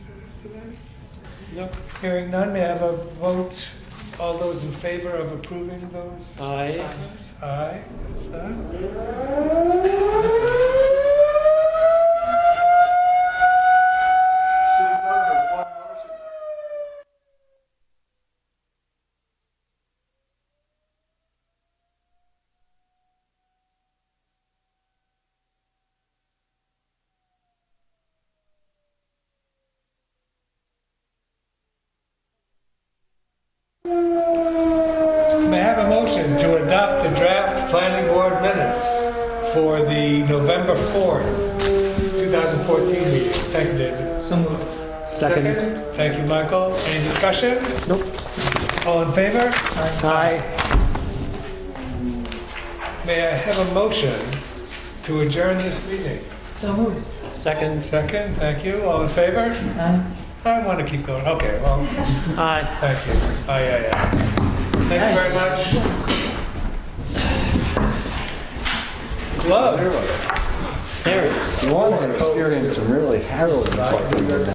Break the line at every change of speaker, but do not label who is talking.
No,
Hearing none, may I have a vote? All those in favor of approving those?
aye.
items? Aye, that's done. May I have a motion to adopt the draft planning board minutes for the November 4th, 2014 meeting? Thank you, David.
Second.
Thank you, Michael. Any discussion?
Nope.
All in favor?
Aye.
May I have a motion to adjourn this meeting?
Second.
Second, thank you. All in favor? I want to keep going. Okay, well,
Aye.
thank you. Aye, aye, aye. Thank you very much. Gloves.
There it is.
You want to experience some really harrowing fucking